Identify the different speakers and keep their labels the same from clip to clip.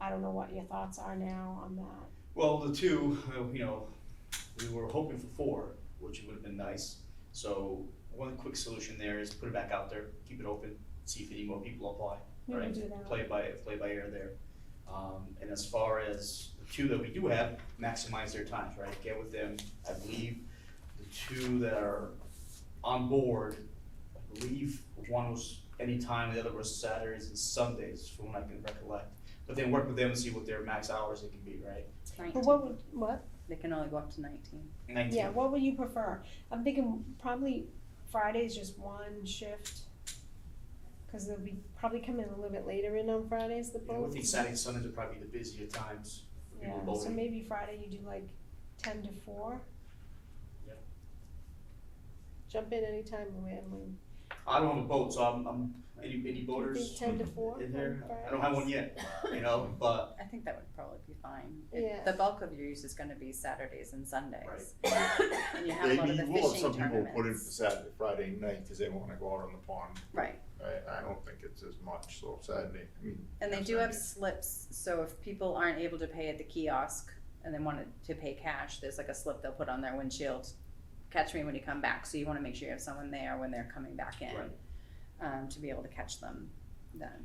Speaker 1: I don't know what your thoughts are now on that.
Speaker 2: Well, the two, uh, you know, we were hoping for four, which would have been nice. So one quick solution there is put it back out there, keep it open, see if any more people apply.
Speaker 1: We
Speaker 2: right?
Speaker 1: can do that.
Speaker 2: Play by, play by ear there. Um, and as far as the two that we do have, maximize their times, right? Get with them. I believe the two that are on board, I believe one was anytime, the other was Saturdays and Sundays, from what I can recollect. But then work with them and see what their max hours it can be, right?
Speaker 1: But
Speaker 3: 19.
Speaker 1: what would, what?
Speaker 3: They can only go up to 19.
Speaker 2: Nineteen.
Speaker 1: Yeah, what would you prefer? I'm thinking probably Friday's just one shift. Cause they'll be probably coming a little bit later in on Fridays, the
Speaker 2: And
Speaker 1: boat.
Speaker 2: with these Saturday and Sundays are probably the busier times for people
Speaker 1: Yeah, so
Speaker 2: voting.
Speaker 1: maybe Friday you do like ten to four.
Speaker 2: Yep.
Speaker 1: Jump in anytime, Lou Anne.
Speaker 2: I don't have a boat, so I'm, I'm, any, any
Speaker 1: I
Speaker 2: voters?
Speaker 1: think ten to four
Speaker 2: mm-hmm. in
Speaker 1: on
Speaker 2: there.
Speaker 1: Fridays.
Speaker 2: I don't have one yet, you know, but
Speaker 3: I think that would probably be fine.
Speaker 1: Yeah.
Speaker 3: The bulk of your use is going to be Saturdays and Sundays. And you have a lot of
Speaker 4: Maybe
Speaker 3: the
Speaker 4: you will have
Speaker 3: fishing
Speaker 4: some people who put in for
Speaker 3: tournaments.
Speaker 4: Saturday, Friday night, because they wanna go out on the pond.
Speaker 3: Right,
Speaker 4: I, I don't think it's as much, so Saturday, I mean.
Speaker 3: and they
Speaker 4: yeah,
Speaker 3: do have
Speaker 4: Saturday.
Speaker 3: slips, so if people aren't able to pay at the kiosk and they wanted to pay cash, there's like a slip they'll put on their windshield. Catch me when you come back, so you wanna make sure you have someone there when they're coming back in.
Speaker 2: Right.
Speaker 3: Um, to be able to catch them then.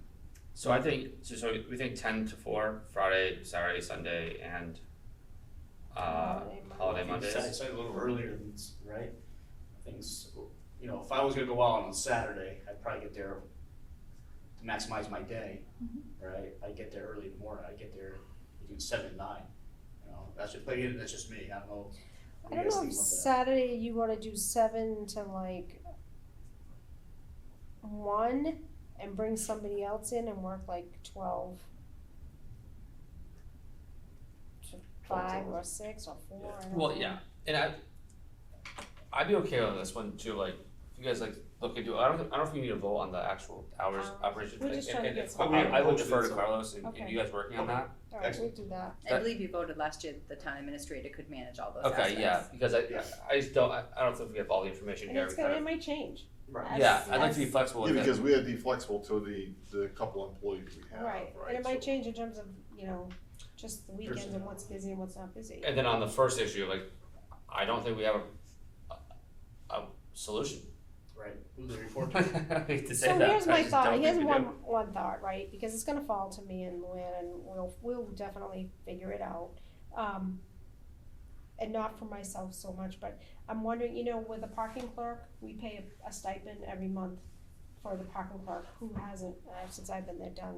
Speaker 5: So I think so. So we think ten to four Friday, Saturday, Sunday, and
Speaker 1: Oh,
Speaker 5: uh,
Speaker 1: Holiday Monday.
Speaker 5: holiday
Speaker 2: I think Saturday,
Speaker 5: Mondays.
Speaker 2: Sunday a little earlier than, s- right? Things, you know, if I was gonna go out on a Saturday, I'd probably get there to maximize my day,
Speaker 1: Mm-hmm.
Speaker 2: right? I get there early in the morning, I get there between seven and nine, you know, that's just, but again, that's just me, I don't know. what
Speaker 1: I
Speaker 2: you
Speaker 1: don't
Speaker 2: guys
Speaker 1: know
Speaker 2: think
Speaker 1: if
Speaker 2: about that.
Speaker 1: Saturday you wanna do seven to like one and bring somebody else in and work like twelve to five or six or four. I don't
Speaker 5: Well,
Speaker 1: know.
Speaker 5: yeah, and I, I'd be okay on this one too. Like, if you guys like look into, I don't, I don't know if you need to vote on the actual hours
Speaker 1: Um,
Speaker 5: operation
Speaker 1: we're
Speaker 5: thing.
Speaker 1: just
Speaker 5: and-
Speaker 1: trying to
Speaker 5: and
Speaker 1: get
Speaker 5: if-
Speaker 1: some-
Speaker 5: I, I would
Speaker 2: Okay.
Speaker 5: defer to Carlos and, and
Speaker 1: Okay.
Speaker 5: you guys working on
Speaker 2: Okay.
Speaker 5: that.
Speaker 1: Alright, we'll do that.
Speaker 3: I
Speaker 5: That-
Speaker 3: believe you voted last year that the town administrator could manage all those aspects.
Speaker 5: Okay, yeah, because I,
Speaker 2: Yeah.
Speaker 5: I just don't, I, I don't think we have all the information
Speaker 1: And
Speaker 5: here.
Speaker 1: it's
Speaker 5: We
Speaker 1: gonna, it
Speaker 5: kind
Speaker 1: might change.
Speaker 2: Right.
Speaker 5: of-
Speaker 1: as-
Speaker 5: yeah, I'd like to be
Speaker 1: as-
Speaker 5: flexible
Speaker 4: Yeah,
Speaker 5: with it.
Speaker 4: because we have to be flexible to the, the couple employees we have, right?
Speaker 1: Right, and it might
Speaker 4: So-
Speaker 1: change in terms of, you know, just the weekends and
Speaker 2: Personnel.
Speaker 1: what's busy and what's not busy.
Speaker 5: And then on the first issue, like, I don't think we have a, a, a solution.
Speaker 2: Right, who's the report?
Speaker 5: I hate to say
Speaker 1: So
Speaker 5: that.
Speaker 1: here's
Speaker 5: I
Speaker 1: my
Speaker 5: just
Speaker 1: thought,
Speaker 5: don't
Speaker 1: here's
Speaker 5: think we
Speaker 1: one,
Speaker 5: do.
Speaker 1: one thought, right, because it's gonna fall to me and Luann and we'll, we'll definitely figure it out. Um, and not for myself so much, but I'm wondering, you know, with a parking clerk, we pay a- a stipend every month for the parking clerk, who hasn't, uh, since I've been there, done,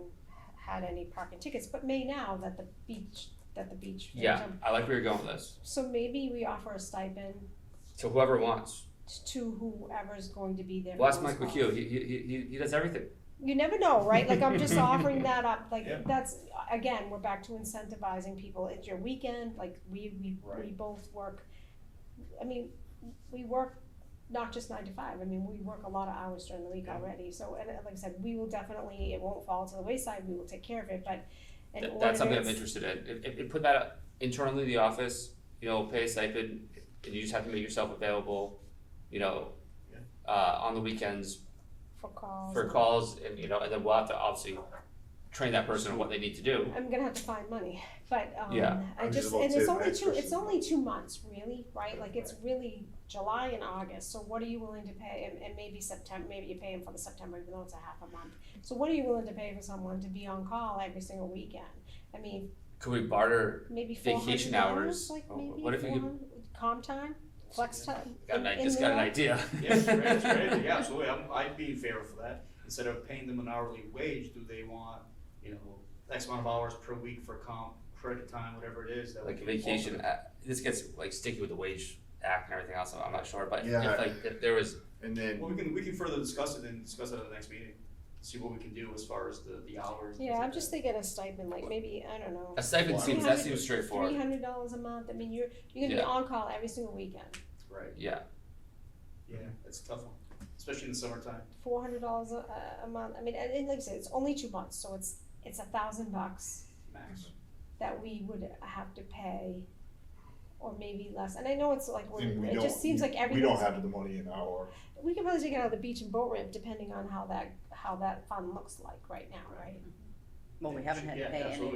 Speaker 1: had any parking tickets, but may now that the beach, that the beach.
Speaker 5: Yeah, I like where you're going with this.
Speaker 1: So maybe we offer a stipend
Speaker 5: To whoever wants.
Speaker 1: to whoever's going to be there.
Speaker 5: Well, that's
Speaker 1: for those
Speaker 5: Michael
Speaker 1: calls.
Speaker 5: Q. He, he, he, he does everything.
Speaker 1: You never know, right? Like I'm just offering that up. Like
Speaker 2: Yeah.
Speaker 1: that's again, we're back to incentivizing people. It's your weekend. Like we we we
Speaker 2: Right.
Speaker 1: both work. I mean, we work not just nine to five. I mean, we work a lot of hours during the week
Speaker 2: Yeah.
Speaker 1: already. So, and uh, like I said, we will definitely it won't fall to the wayside. We will take care of it. But in
Speaker 5: Th-
Speaker 1: order
Speaker 5: that's something I'm
Speaker 1: to-
Speaker 5: interested in. If, if, if put that up internally in the office, you know, pay a stipend, and you just have to make yourself available, you know,
Speaker 2: Yeah.
Speaker 5: uh, on the weekends
Speaker 1: for calls.
Speaker 5: for calls, and you know, and then we'll have to obviously train that person on what they need to do.
Speaker 1: I'm gonna have to find money, but um,
Speaker 5: Yeah.
Speaker 1: I
Speaker 4: I'm just
Speaker 1: just
Speaker 4: about
Speaker 1: and it's
Speaker 4: to say the
Speaker 1: only
Speaker 4: next
Speaker 1: two. It's
Speaker 4: question.
Speaker 1: only two months, really, right? Like it's really July and August. So what are you willing to pay? And, and maybe September. Maybe you pay him for the September, even though it's a half a month. So what are you willing to pay for someone to be on call every single weekend? I mean,
Speaker 5: Could we barter?
Speaker 1: maybe four hundred
Speaker 5: Vacation
Speaker 1: dollars,
Speaker 5: hours.
Speaker 1: like
Speaker 5: Oh,
Speaker 1: maybe
Speaker 5: what if you could-
Speaker 1: 400 calm time, flex time.
Speaker 5: Got
Speaker 1: in-
Speaker 5: an, I
Speaker 1: in
Speaker 5: just got an
Speaker 1: lieu?
Speaker 5: idea.
Speaker 2: Yes, right, that's right, yeah, absolutely, I'm, I'd be in favor for that, instead of paying them an hourly wage, do they want, you know, X amount of hours per week for comp, credit time, whatever it is that we
Speaker 5: like
Speaker 2: can
Speaker 5: vacation.
Speaker 2: offer?
Speaker 5: Uh, this gets like sticky with the wage act and everything else. I'm, I'm not sure, but
Speaker 4: Yeah.
Speaker 5: if like if there was
Speaker 4: And then,
Speaker 2: Well, we can, we can further discuss it and discuss it at the next meeting, see what we can do as far as the, the hours. and things
Speaker 1: Yeah, I'm
Speaker 2: like
Speaker 1: just
Speaker 2: that.
Speaker 1: thinking a stipend, like maybe I don't know.
Speaker 5: a stipend
Speaker 4: Why?
Speaker 5: seems that seems
Speaker 1: Three
Speaker 5: straightforward.
Speaker 1: hundred dollars a month. I mean, you're you're gonna
Speaker 5: Yeah.
Speaker 1: be on call every single weekend.
Speaker 2: Right,
Speaker 5: Yeah,
Speaker 2: yeah, that's a tough one, especially in the summertime.
Speaker 1: four hundred dollars a, a month. I mean, and, and like I said, it's only two months, so it's it's a thousand bucks
Speaker 2: Max.
Speaker 1: that we would have to pay, or maybe less. And I know it's like we're,
Speaker 4: then we
Speaker 1: it
Speaker 4: don't,
Speaker 1: just seems like
Speaker 4: we- we
Speaker 1: everything's
Speaker 4: don't have the money in our,
Speaker 1: we can probably take it out of the beach and boat ramp depending on how that how that fund looks like right now, right?
Speaker 3: Well, we haven't had to
Speaker 2: Yeah,
Speaker 3: pay any
Speaker 2: absolutely.